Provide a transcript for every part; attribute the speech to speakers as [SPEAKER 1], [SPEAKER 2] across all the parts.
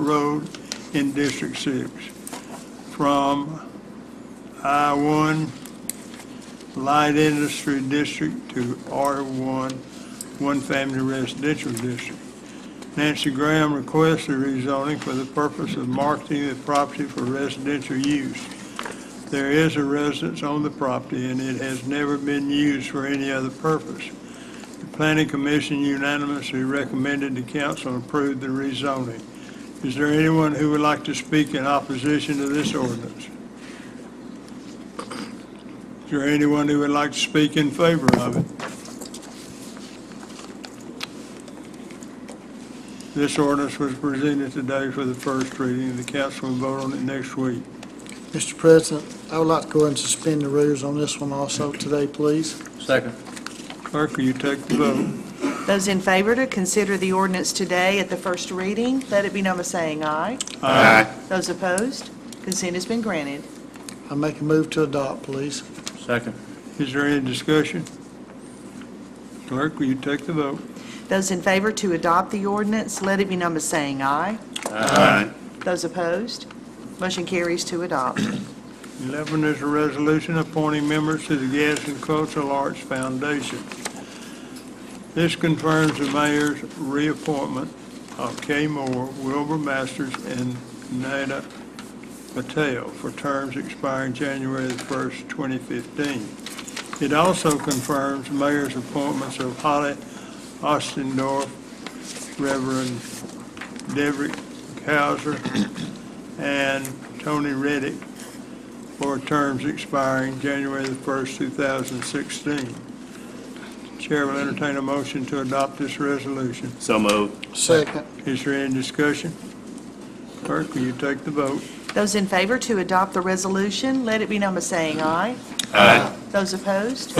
[SPEAKER 1] Road in District Six from I-1 Light Industry District to R1 One Family Residential District. Nancy Graham requests a rezoning for the purpose of marketing the property for residential use. There is a residence on the property, and it has never been used for any other purpose. The Planning Commission unanimously recommended the council approve the rezoning. Is there anyone who would like to speak in opposition to this ordinance? Is there anyone who would like to speak in favor of it? This ordinance was presented today for the first reading. The council will vote on it next week.
[SPEAKER 2] Mr. President, I would like to go ahead and suspend the rules on this one also today, please.
[SPEAKER 3] Second.
[SPEAKER 1] Clerk, will you take the vote?
[SPEAKER 4] Those in favor to consider the ordinance today at the first reading, let it be known by saying aye. Those opposed, consent has been granted.
[SPEAKER 2] I make a move to adopt, please.
[SPEAKER 3] Second.
[SPEAKER 1] Is there any discussion? Clerk, will you take the vote?
[SPEAKER 4] Those in favor to adopt the ordinance, let it be known by saying aye.
[SPEAKER 3] Aye.
[SPEAKER 4] Those opposed, motion carries to adopt.
[SPEAKER 1] 11 is a resolution appointing members to the Gadsden Cultural Arts Foundation. This confirms the mayor's reappointment of Kay Moore, Wilbur Masters, and Nada Patel for terms expiring January the 1st, 2015. It also confirms mayor's appointments of Holly Ostendorf, Reverend Debrick Hauser, and Tony Reddick for terms expiring January the 1st, 2016. Chair will entertain a motion to adopt this resolution.
[SPEAKER 3] So moved.
[SPEAKER 2] Second.
[SPEAKER 1] Is there any discussion? Clerk, will you take the vote?
[SPEAKER 4] Those in favor to adopt the resolution, let it be known by saying aye.
[SPEAKER 3] Aye.
[SPEAKER 4] Those opposed,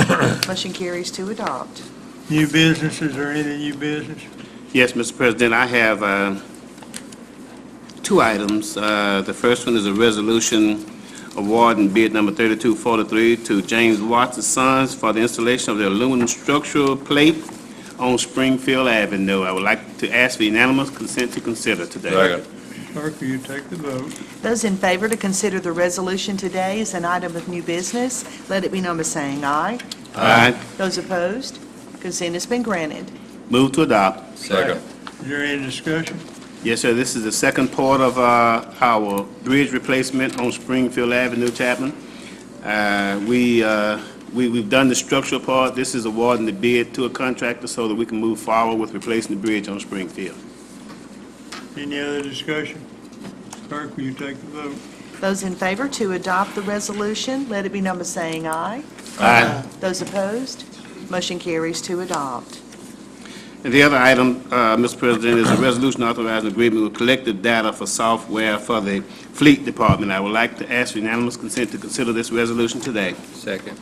[SPEAKER 4] motion carries to adopt.
[SPEAKER 1] New business, is there any new business?
[SPEAKER 5] Yes, Mr. President, I have uh, two items. Uh, The first one is a resolution awarding bid number 3243 to James Watts and Sons for the installation of the aluminum structural plate on Springfield Avenue. I would like to ask for unanimous consent to consider today.
[SPEAKER 1] Clerk, will you take the vote?
[SPEAKER 4] Those in favor to consider the resolution today as an item of new business, let it be known by saying aye.
[SPEAKER 5] Aye.
[SPEAKER 4] Those opposed, consent has been granted.
[SPEAKER 5] Move to adopt.
[SPEAKER 3] Second.
[SPEAKER 1] Is there any discussion?
[SPEAKER 5] Yes, sir, this is the second part of uh, our bridge replacement on Springfield Avenue, Chapman. Uh, We, uh, we- we've done the structural part, this is awarding the bid to a contractor so that we can move forward with replacing the bridge on Springfield.
[SPEAKER 1] Any other discussion? Clerk, will you take the vote?
[SPEAKER 4] Those in favor to adopt the resolution, let it be known by saying aye.
[SPEAKER 5] Aye.
[SPEAKER 4] Those opposed, motion carries to adopt.
[SPEAKER 5] And the other item, uh, Mr. President, is a resolution authorizing agreement with collective data for software for the Fleet Department. I would like to ask for unanimous consent to consider this resolution today.
[SPEAKER 3] Second.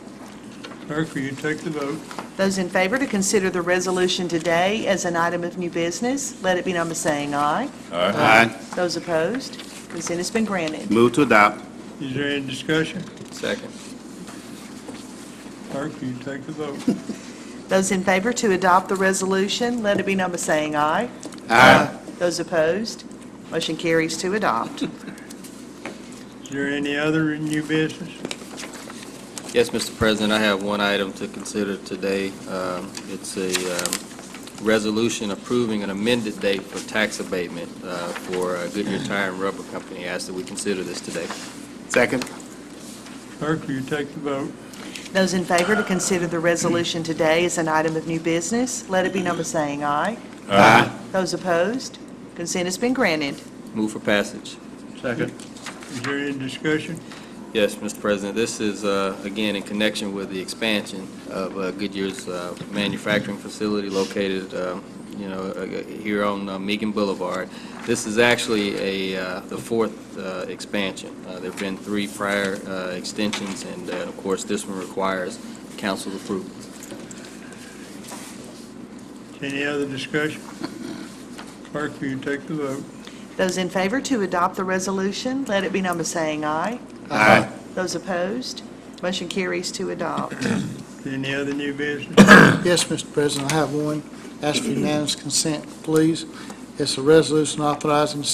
[SPEAKER 1] Clerk, will you take the vote?
[SPEAKER 4] Those in favor to consider the resolution today as an item of new business, let it be known by saying aye.
[SPEAKER 5] Aye.
[SPEAKER 4] Those opposed, consent has been granted.
[SPEAKER 5] Move to adopt.
[SPEAKER 1] Is there any discussion?
[SPEAKER 3] Second.
[SPEAKER 1] Clerk, will you take the vote?
[SPEAKER 4] Those in favor to adopt the resolution, let it be known by saying aye.
[SPEAKER 5] Aye.
[SPEAKER 4] Those opposed, motion carries to adopt.
[SPEAKER 1] Is there any other new business?
[SPEAKER 3] Yes, Mr. President, I have one item to consider today. Um, It's a um, resolution approving an amended date for tax abatement uh, for uh, Goodyear Tire and Rubber Company. I ask that we consider this today.
[SPEAKER 5] Second?
[SPEAKER 1] Clerk, will you take the vote?
[SPEAKER 4] Those in favor to consider the resolution today as an item of new business, let it be known by saying aye.
[SPEAKER 5] Aye.
[SPEAKER 4] Those opposed, consent has been granted.
[SPEAKER 3] Move for passage.
[SPEAKER 1] Second. Is there any discussion?
[SPEAKER 3] Yes, Mr. President, this is, uh, again, in connection with the expansion of uh, Goodyear's uh, manufacturing facility located, um, you know, uh, here on uh, Meakin Boulevard. This is actually a, uh, the fourth uh, expansion. Uh, There've been three prior uh, extensions, and uh, of course, this one requires council approval.
[SPEAKER 1] Any other discussion? Clerk, will you take the vote?
[SPEAKER 4] Those in favor to adopt the resolution, let it be known by saying aye.
[SPEAKER 5] Aye.
[SPEAKER 4] Those opposed, motion carries to adopt.
[SPEAKER 1] Any other new business?
[SPEAKER 2] Yes, Mr. President, I have one. Ask for unanimous consent, please. It's a resolution authorizing the